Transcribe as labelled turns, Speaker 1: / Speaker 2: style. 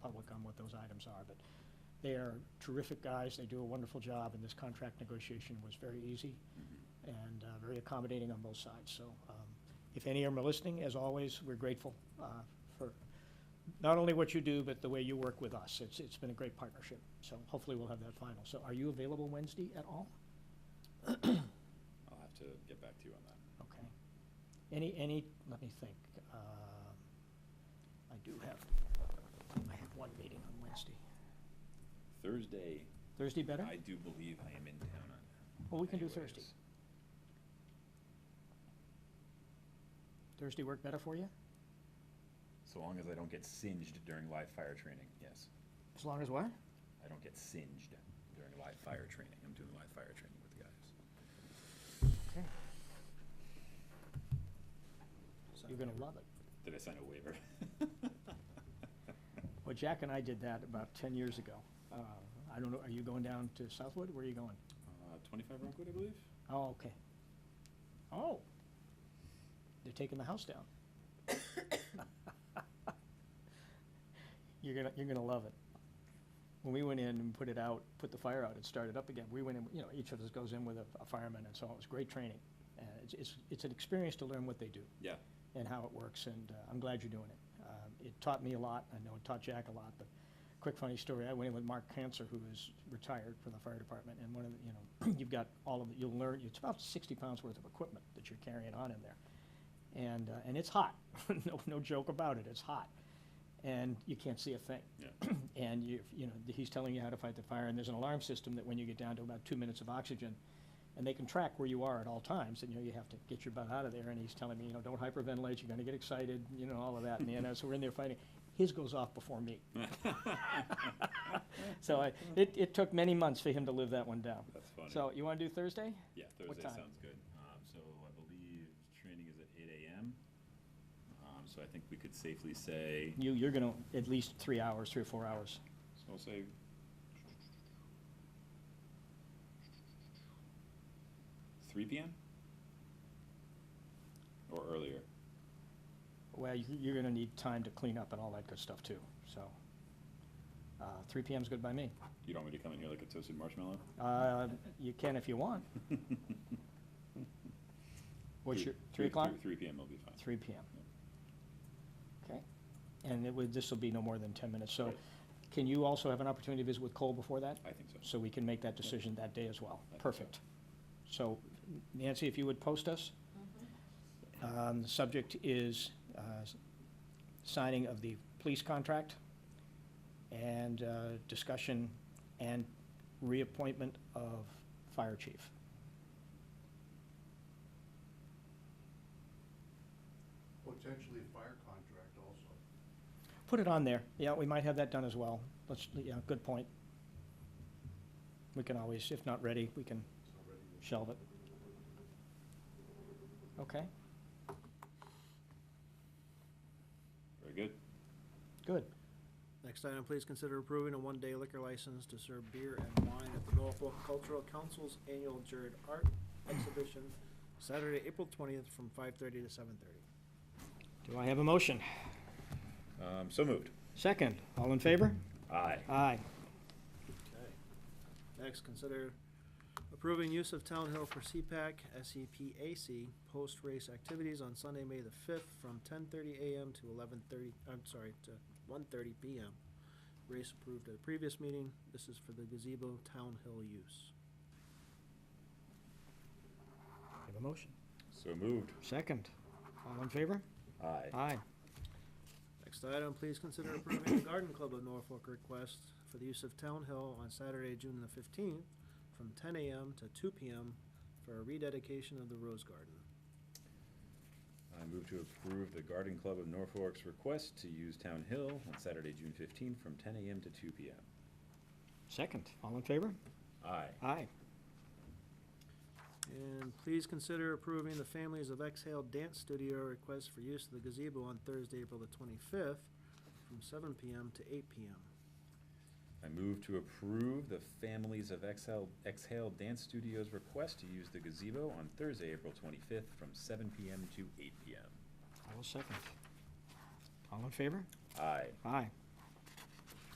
Speaker 1: firms are, but they are terrific guys, they do a wonderful job, and this contract negotiation was very easy
Speaker 2: Mm-hmm.
Speaker 1: and uh, very accommodating on both sides. So um, if any of them are listening, as always, we're grateful uh, for not only what you do, but the way you work with us. It's, it's been a great partnership, so hopefully we'll have that final. So are you available Wednesday at all?
Speaker 2: I'll have to get back to you on that.
Speaker 1: Okay. Any, any, let me think. Um, I do have, I have one meeting on Wednesday.
Speaker 2: Thursday,
Speaker 1: Thursday better?
Speaker 2: I do believe I am in town on.
Speaker 1: Well, we can do
Speaker 2: anyways.
Speaker 1: Thursday. Thursday work better for you?
Speaker 2: So long as I don't get singed during live fire training, yes.
Speaker 1: As long as what?
Speaker 2: I don't get singed during live fire training. I'm doing live fire training with the guys.
Speaker 1: Okay. You're gonna love it.
Speaker 2: Did I sign a waiver?
Speaker 1: Well, Jack and I did that about ten years ago. Uh, I don't know, are you going down to Southwood? Where are you going?
Speaker 2: Uh, twenty-five Rockwood, I believe?
Speaker 1: Oh, okay. Oh. They're taking the house down. You're gonna, you're gonna love it. When we went in and put it out, put the fire out, it started up again. We went in, you know, each of us goes in with a a fireman and so it was great training. Uh, it's, it's, it's an experience to learn what they do
Speaker 2: Yeah.
Speaker 1: and how it works, and uh, I'm glad you're doing it. Um, It taught me a lot, I know it taught Jack a lot, but quick funny story, I went in with Mark Cancer, who is retired from the fire department, and one of the, you know, you've got all of, the- you'll learn, it's about sixty pounds worth of equipment that you're carrying on in there. And, uh, and it's hot, no, no joke about it, it's hot, and you can't see a thing
Speaker 2: Yeah.
Speaker 1: and you, you know, he's telling you how to fight the fire, and there's an alarm system that when you get down to about two minutes of oxygen, and they can track where you are at all times, and you know, you have to get your butt out of there, and he's telling me, you know, don't hyperventilate, you're gonna get excited, you know, all of that, and, you know, so we're in there fighting. His goes off before me. So I, it, it took many months for him to live that one down.
Speaker 2: That's funny.
Speaker 1: So you wanna do Thursday?
Speaker 2: Yeah,
Speaker 1: What
Speaker 2: Thursday
Speaker 1: time?
Speaker 2: sounds good. Um, so I believe training is at eight AM. Um, so I think we could safely say,
Speaker 1: You, you're gonna, at least three hours, three or four hours.
Speaker 2: so I'll say. Three PM? Or earlier?
Speaker 1: Well, you, you're gonna need time to clean up and all that good stuff too, so. Uh, three PM's good by me.
Speaker 2: You don't want me to come in here like a toasted marshmallow?
Speaker 1: Uh, you can if you want. What's
Speaker 2: Three-
Speaker 1: your, three o'clock?
Speaker 2: Three PM will be fine.
Speaker 1: Three PM. Okay, and it would, this will be no more than ten minutes, so
Speaker 2: Right.
Speaker 1: can you also have an opportunity to visit with Cole before that?
Speaker 2: I think so.
Speaker 1: So we can make that decision that day as well.
Speaker 2: I think so.
Speaker 1: Perfect. So Nancy, if you would post us. Um, the subject is, uh, s- signing of the police contract and, uh, discussion and reappointment of fire chief.
Speaker 3: Potentially a fire contract also.
Speaker 1: Put it on there. Yeah, we might have that done as well. Let's, yeah, good point. We can always, if not ready, we can
Speaker 3: It's not ready yet.
Speaker 1: shelve it. Okay,
Speaker 2: Very good.
Speaker 1: good.
Speaker 4: Next item, please consider approving a one-day liquor license to serve beer and wine at the Norfolk Cultural Council's annual Jared Art Exhibition, Saturday, April twentieth, from five-thirty to seven-thirty.
Speaker 1: Do I have a motion?
Speaker 2: Um, so moved.
Speaker 1: Second, all in favor?
Speaker 2: Aye.
Speaker 1: Aye.
Speaker 4: Okay. Next, consider approving use of Town Hill for CPAC, SEPAC, post-race activities on Sunday, May the fifth, from ten-thirty AM to eleven-thirty, I'm sorry, to one-thirty PM. Race approved at a previous meeting. This is for the gazebo Town Hill use.
Speaker 1: I have a motion.
Speaker 2: So moved.
Speaker 1: Second, all in favor?
Speaker 2: Aye.
Speaker 1: Aye.
Speaker 4: Next item, please consider approving the Garden Club of Norfolk request for the use of Town Hill on Saturday, June the fifteenth, from ten AM to two PM for a rededication of the Rose Garden.
Speaker 2: I move to approve the Garden Club of Norfolk's request to use Town Hill on Saturday, June fifteenth, from ten AM to two PM.
Speaker 1: Second, all in favor?
Speaker 2: Aye.
Speaker 1: Aye.
Speaker 4: And please consider approving the Families of Exhale Dance Studio request for use of the gazebo on Thursday, April the twenty-fifth, from seven PM to eight PM.
Speaker 2: I move to approve the Families of Exhale, Exhale Dance Studio's request to use the gazebo on Thursday, April twenty-fifth, from seven PM to eight PM.
Speaker 1: I will second. All in favor?
Speaker 2: Aye.
Speaker 1: Aye.